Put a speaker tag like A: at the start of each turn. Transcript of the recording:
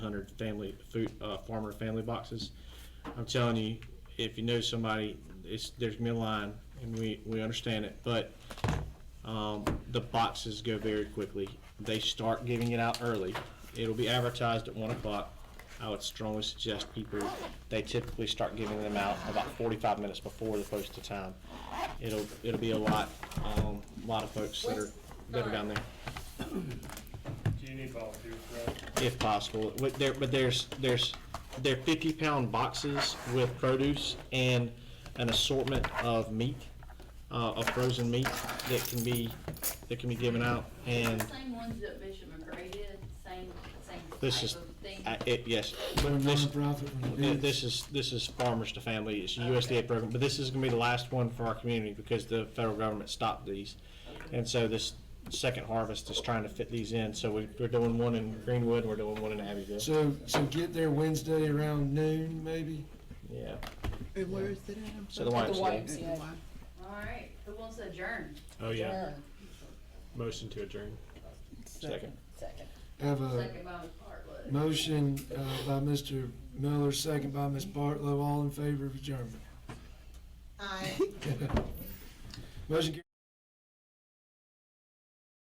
A: hundred family food uh, farmer family boxes. I'm telling you, if you know somebody, it's there's gonna be a line, and we we understand it, but um, the boxes go very quickly. They start giving it out early. It'll be advertised at one o'clock. I would strongly suggest people, they typically start giving them out about forty-five minutes before the posted time. It'll, it'll be a lot, um, lot of folks that are, that are down there.
B: Do you need volunteers for that?
A: if possible. But there, but there's, there's, they're fifty pound boxes with produce and an assortment of meat, uh, of frozen meat that can be, that can be given out. And
C: Same ones that Bishop McGray did, same, same
A: This is-
C: type of thing.
A: I, it, yes,
D: They're
A: This-
D: nonprofit. when they do
A: Th-
D: it.
A: This is, this is Farmers to Family, it's a USDA program, but this is gonna be the last one for our community because the federal government stopped these. And so this second harvest is trying to fit these in, so we, we're doing one in Greenwood, we're doing one in Abbeville.
D: So, so get there Wednesday around noon, maybe?
A: Yeah,
E: And where is it at? I'm
A: so the
E: sorry.
F: The
A: YMCA.
F: YMCA.
C: All right, who wants to adjourn?
A: Oh, yeah,
F: Yeah.
A: motion to adjourn. Second.
F: Second.
D: Have a
C: Second by Bartlett.
D: motion uh, by Mr. Miller, second by Ms. Bartlow, all in favor of adjournment. Aye. Motion carries.